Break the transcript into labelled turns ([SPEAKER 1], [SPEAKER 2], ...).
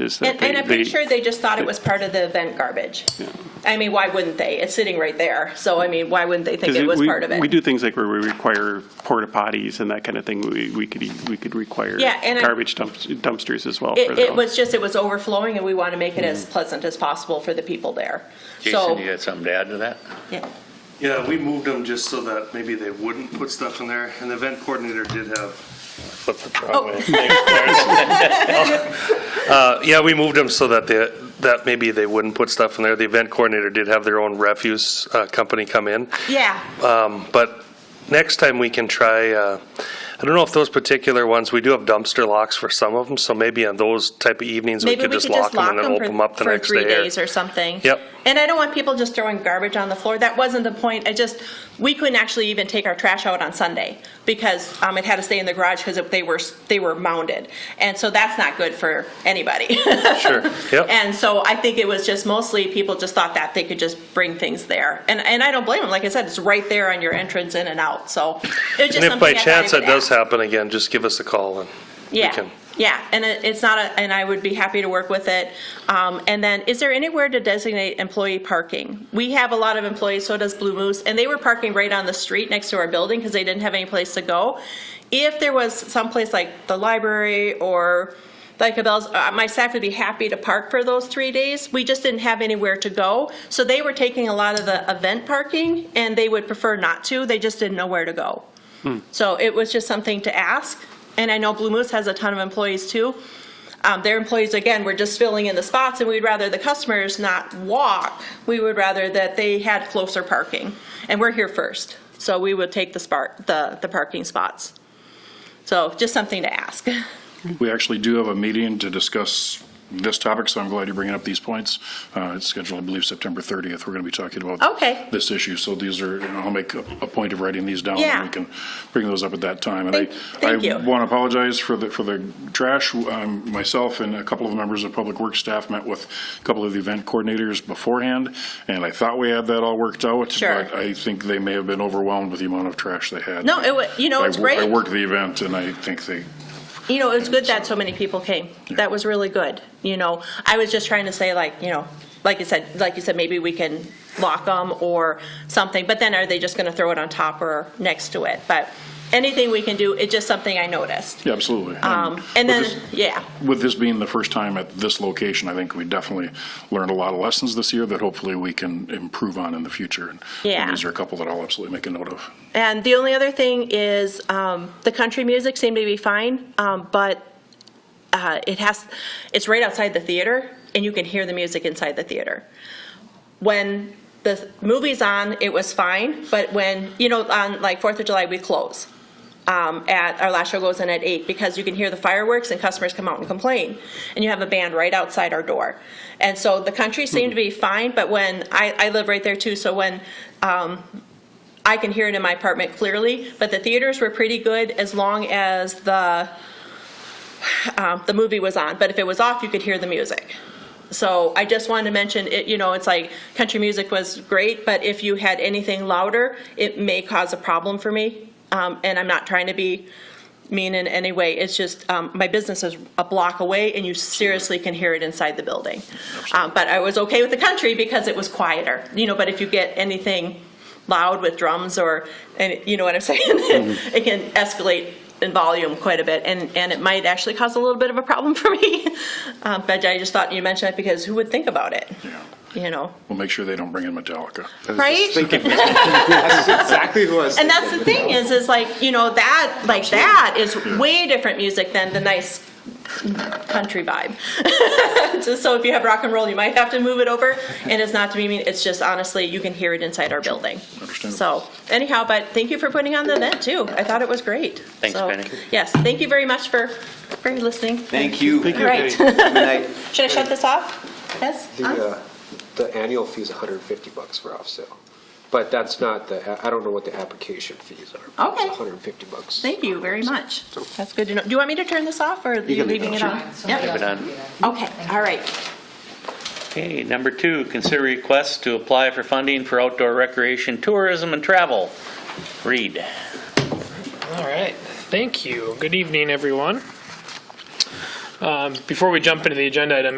[SPEAKER 1] is that
[SPEAKER 2] And,
[SPEAKER 1] they,
[SPEAKER 2] and I'm pretty
[SPEAKER 1] they-
[SPEAKER 2] sure they just thought it was part of the event garbage. I mean, why wouldn't they? It's sitting right there. So, I mean, why wouldn't they think
[SPEAKER 1] 'cause
[SPEAKER 2] it was
[SPEAKER 1] we-
[SPEAKER 2] part of it?
[SPEAKER 1] We do things like where we require porta potties and that kind of thing. We, we could, e- we could require
[SPEAKER 2] Yeah, and I-
[SPEAKER 1] garbage dumps- dumpsters as well. for
[SPEAKER 2] It,
[SPEAKER 1] their
[SPEAKER 2] it
[SPEAKER 1] own.
[SPEAKER 2] was just, it was overflowing and we want to make it
[SPEAKER 3] Mm-hmm.
[SPEAKER 2] as pleasant as possible for the people there. So,
[SPEAKER 4] Jason, you got something to add to that?
[SPEAKER 2] yeah.
[SPEAKER 3] Yeah, we moved them just so that maybe they wouldn't put stuff in there, and the event coordinator did have.
[SPEAKER 4] Flip the wrong
[SPEAKER 2] Oh.
[SPEAKER 4] way.
[SPEAKER 3] Uh, Yeah, we moved them so that they, that maybe they wouldn't put stuff in there. The event coordinator did have their own refuse uh, company come in.
[SPEAKER 2] yeah.
[SPEAKER 3] Um, But next time we can try, uh, I don't know if those particular ones, we do have dumpster locks for some of them, so maybe on those type of evenings, we
[SPEAKER 2] Maybe
[SPEAKER 3] could
[SPEAKER 2] we
[SPEAKER 3] just
[SPEAKER 2] could just
[SPEAKER 3] lock them
[SPEAKER 2] lock
[SPEAKER 3] and then
[SPEAKER 2] them
[SPEAKER 3] open them up
[SPEAKER 2] for,
[SPEAKER 3] the
[SPEAKER 2] for
[SPEAKER 3] next
[SPEAKER 2] three
[SPEAKER 3] day.
[SPEAKER 2] days or something.
[SPEAKER 3] Yep.
[SPEAKER 2] And I don't want people just throwing garbage on the floor. That wasn't the point. I just, we couldn't actually even take our trash out on Sunday because um, it had to stay in the garage because they were, they were mounded. And so that's not good for anybody.
[SPEAKER 3] Sure, yep.
[SPEAKER 2] And so I think it was just mostly people just thought that they could just bring things there. And, and I don't blame them. Like I said, it's right there on your entrance in and out. So it's just
[SPEAKER 3] And if
[SPEAKER 2] something I
[SPEAKER 3] by
[SPEAKER 2] thought I
[SPEAKER 3] chance that
[SPEAKER 2] would
[SPEAKER 3] does
[SPEAKER 2] ask.
[SPEAKER 3] happen again, just give us a call and we
[SPEAKER 2] Yeah.
[SPEAKER 3] can.
[SPEAKER 2] Yeah. And it, it's not a, and I would be happy to work with it. Um, and then is there anywhere to designate employee parking? We have a lot of employees, so does Blue Moose, and they were parking right on the street next to our building because they didn't have any place to go. If there was someplace like the library or like Cabela's, uh, my staff would be happy to park for those three days. We just didn't have anywhere to go. So they were taking a lot of the event parking and they would prefer not to. They just didn't know where to go. So it was just something to ask. And I know Blue Moose has a ton of employees too. Um, their employees, again, were just filling in the spots, and we'd rather the customers not walk. We would rather that they had closer parking. And we're here first, so we would take the spark, the, the parking spots. So just something to ask.
[SPEAKER 5] We actually do have a meeting to discuss this topic, so I'm glad you're bringing up these points. Uh, It's scheduled, I believe, September 30th. We're going to be talking about
[SPEAKER 2] Okay.
[SPEAKER 5] this issue. So these are, you know, I'll make a a point of writing these down. and
[SPEAKER 2] Yeah.
[SPEAKER 5] We can bring those up at that time. And
[SPEAKER 2] Thank- thank
[SPEAKER 5] I-
[SPEAKER 2] you.
[SPEAKER 5] I want to apologize for the, for the trash. Um, Myself and a couple of members of Public Works staff met with a couple of the event coordinators beforehand, and I thought we had that all worked out.
[SPEAKER 2] Sure.
[SPEAKER 5] But I think they may have been overwhelmed with the amount of trash they had.
[SPEAKER 2] No, it wa, you know,
[SPEAKER 5] I
[SPEAKER 2] it's
[SPEAKER 5] wo-
[SPEAKER 2] great.
[SPEAKER 5] I worked the event, and I think they
[SPEAKER 2] You know, it's good that so many people came. That was really good. You know, I was just trying to say like, you know, like you said, like you said, maybe we can lock them or something, but then are they just gonna throw it on top or next to it? But anything we can do, it's just something I noticed.
[SPEAKER 5] Yeah, absolutely.
[SPEAKER 2] Um, and
[SPEAKER 5] with
[SPEAKER 2] then, yeah,
[SPEAKER 5] this- With this being the first time at this location, I think we definitely learned a lot of lessons this year that hopefully we can improve on in the future. And-
[SPEAKER 2] Yeah.
[SPEAKER 5] And these are a couple that I'll absolutely make a note of.
[SPEAKER 2] and the only other thing is, um, the country music seemed to be fine, um, but, uh, it has, it's right outside the theater and you can hear the music inside the theater. when the movie's on, it was fine, but when, you know, on like Fourth of July, we close. Um, at, our last show goes in at eight because you can hear the fireworks and customers come out and complain. And you have a band right outside our door. And so the country seemed to be fine, but when, I, I live right there too, so when, um, I can hear it in my apartment clearly, but the theaters were pretty good as long as the, um, the movie was on. But if it was off, you could hear the music. So I just wanted to mention it, you know, it's like country music was great, but if you had anything louder, it may cause a problem for me. Um, and I'm not trying to be mean in any way. It's just, um, my business is a block away and you seriously can hear it inside the building. Um, but I was okay with the country because it was quieter, you know, but if you get anything loud with drums or, and you know what I'm saying? It can escalate in volume quite a bit and, and it might actually cause a little bit of a problem for me. Um, but I just thought you mentioned it because who would think about it,
[SPEAKER 5] Yeah.
[SPEAKER 2] you know?
[SPEAKER 5] We'll make sure they don't bring in Metallica.
[SPEAKER 2] Right?
[SPEAKER 6] That's exactly who I was
[SPEAKER 2] And
[SPEAKER 6] thinking.
[SPEAKER 2] that's the thing is, is like, you know, that, like that is way different music than the nice country vibe. Just so if you have rock and roll, you might have to move it over. And it's not to be mean, it's just honestly, you can hear it inside our building. So
[SPEAKER 5] Understandable.
[SPEAKER 2] anyhow, but thank you for putting on the event too. I thought it was great.
[SPEAKER 4] Thanks,
[SPEAKER 2] So,
[SPEAKER 4] Penny.
[SPEAKER 2] Yes, thank you very much for, for listening.
[SPEAKER 6] Thank you.
[SPEAKER 2] All right.
[SPEAKER 6] Good night.
[SPEAKER 2] Should I shut this off? Yes? Huh?
[SPEAKER 7] The, uh, the annual fee is 150 bucks for off-sale, but that's not the, I don't know what the application fees are. but it's
[SPEAKER 2] Okay.
[SPEAKER 7] 150 bucks.
[SPEAKER 2] Thank you very much. That's good to know. Do you want me to turn this off or are you
[SPEAKER 6] can leave it
[SPEAKER 2] leaving it
[SPEAKER 6] on.
[SPEAKER 2] on? Yep.
[SPEAKER 4] Moving on.
[SPEAKER 2] Okay, all right.
[SPEAKER 4] Okay, number two, consider requests to apply for funding for outdoor recreation, tourism, and travel. Read.
[SPEAKER 8] All right, thank you. Good evening, everyone. Um, Before we jump into the agenda item,